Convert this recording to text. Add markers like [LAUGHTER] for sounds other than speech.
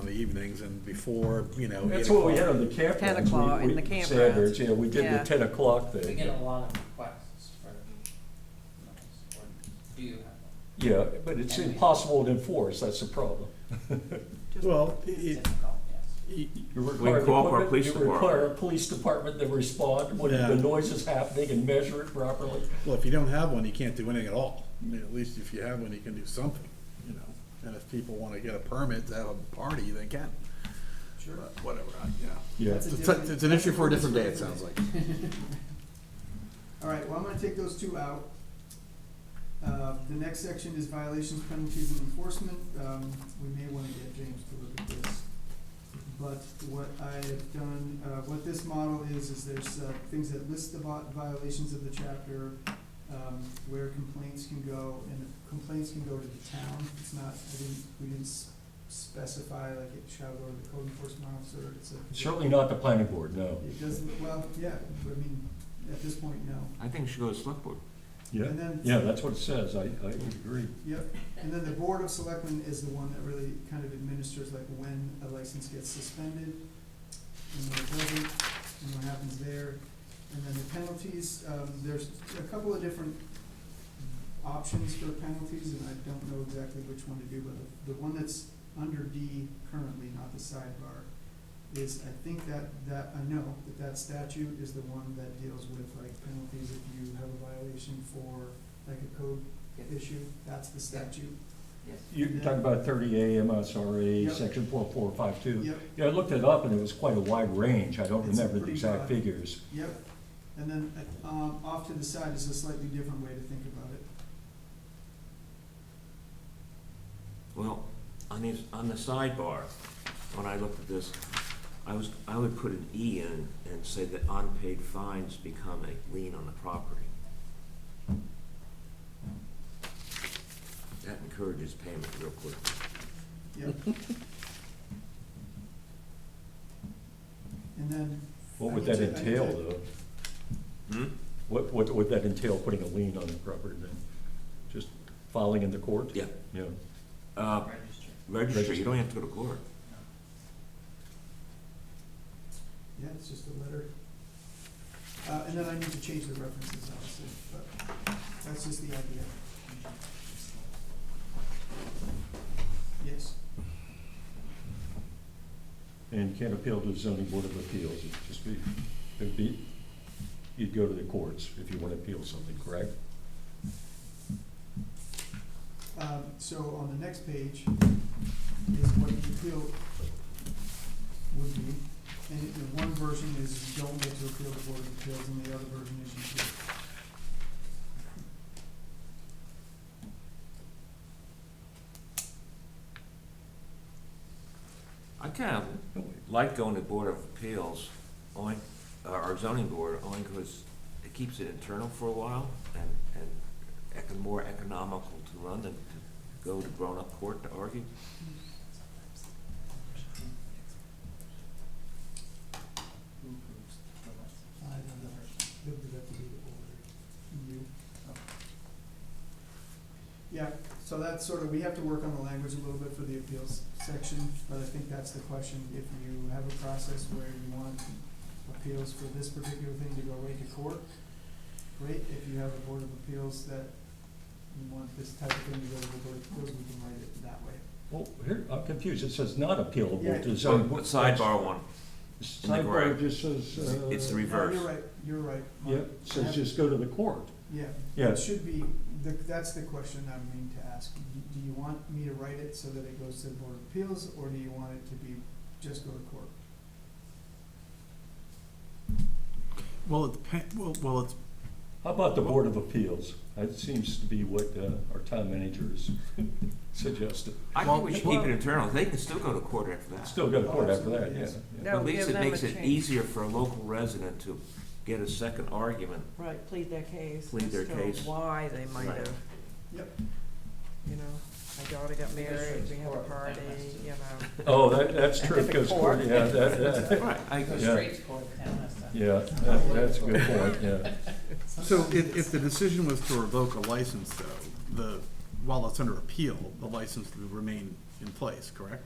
the evenings and before, you know. That's 8 what we had o'clock. on the campgrounds. 10 o'clock We- in we- the campgrounds. Standards, yeah, we did Yeah. the ten o'clock We get thing. a lot of requests for notice, or do you have them? Yeah, but it's impossible to enforce, that's the problem. Well, It's it, difficult, yes. it, You require the cooperate equipment, police you department. require a police department to respond when Yeah. the noise is happening and measure it properly. Well, if you don't have one, you can't do anything at all. I mean, at least if you have one, you can do something, you know. And if people wanna get a permit to have a party, they can. Sure. Whatever, I- yeah. Yeah. That's a It's, different- a- it's an issue for a different day, it sounds like. [LAUGHS] All right, well, I'm gonna take those two out. Uh, the next section is violations, penalties, and enforcement. Um, we may wanna get James to look at this. But what I have done, uh, what this model is, is there's, uh, things that list the vi- violations of the chapter, um, where complaints can go, and the complaints can go to the town. It's not, I didn't, we didn't s- specify, like, it shall go to the code enforcement officer, it's a. Certainly not the planning board, no. It doesn't, well, yeah, I mean, at this point, no. I think it should go to select board. Yeah, And then- yeah, that's what it says, I, I would agree. Yep, and then the Board of Selectmen is the one that really kind of administers like when a license gets suspended, and when it doesn't, and what happens there. And then the penalties, um, there's a couple of different options for penalties, and I don't know exactly which one to do, but the, the one that's under D currently, not the sidebar, is I think that, that, I know that that statute is the one that deals with like penalties if you have a violation for like a code issue, that's the statute. Yes. You're talking about thirty A MSRA, Yep. section four four five two. Yep, Yeah, I looked it up and it was quite a wide range, I don't It's remember the pretty exact broad. figures. yep. And then, uh, um, off to the side is a slightly different way to think about it. Well, on the, on the sidebar, when I looked at this, I was, I would put an E in and say that unpaid fines become a lien on the property. That encourages payment real quick. Yep. And then. What I would can that ta- I can entail, ta- though? Hmm? What, what would that entail, putting a lien on the property then? Just filing in the court? Yeah, Yeah, uh, Register. registry, you don't have to go to court. Yeah, it's just a letter. Uh, and then I need to change the references, obviously, but that's just the idea. Yes, and you can't appeal to the zoning board of appeals, it'd just be, it'd be, you'd go to the courts if you want to appeal something, correct? um, so on the next page is what the appeal would be. And it- the one version is you don't get to appeal the Board of Appeals, and the other version is you do. I kind of like going to Board of Appeals, only, uh, or zoning board, only because it keeps it internal for a while and, and econ- more economical to run than to go to grown-up court to argue. Who approves the license? I don't know, You'll have to be the order. You. Yeah, so that's sort of, we have to work on the language a little bit for the appeals section, but I think that's the question. If you have a process where you want appeals for this particular thing to go right to court, great. If you have a board of appeals that you want this type of thing to go to the board of appeals, we can write it that way. Well, here, I'm confused, it says not Yeah. appealable to the So, zoning board. sidebar one, Sidebar just says, uh. it's the No, reverse. You're right, you're right. Yeah, Mark. says just go to the court. Yeah. Yeah. It should be, the- that's the question I mean to ask. Do- Do you want me to write it so that it goes to the Board of Appeals, or do you want it to be, just go to court? Well, it depends, well, well, it's, How about the Board of Appeals? That seems to be what uh, our town manager [LAUGHS] is suggesting. I Well, think we should keep well- it internal, they can still go to court after that. Still go to court after that, yeah. yeah. No, At least give it them a makes it chance. easier for a local resident to get a second argument. Right, plead their case. Plead their as to case. Why they might Right. have. Yep. You know, my daughter got married, we had a Or- party, you know. Oh, that, that's true, Different goes court. court, yeah, that, that, Right, [LAUGHS] I, Go Yeah. straight to court, town has to. yeah, that- that's a good point, yeah. [LAUGHS] so if, if the decision was to revoke a license though, the, while it's under appeal, the license would remain in place, correct?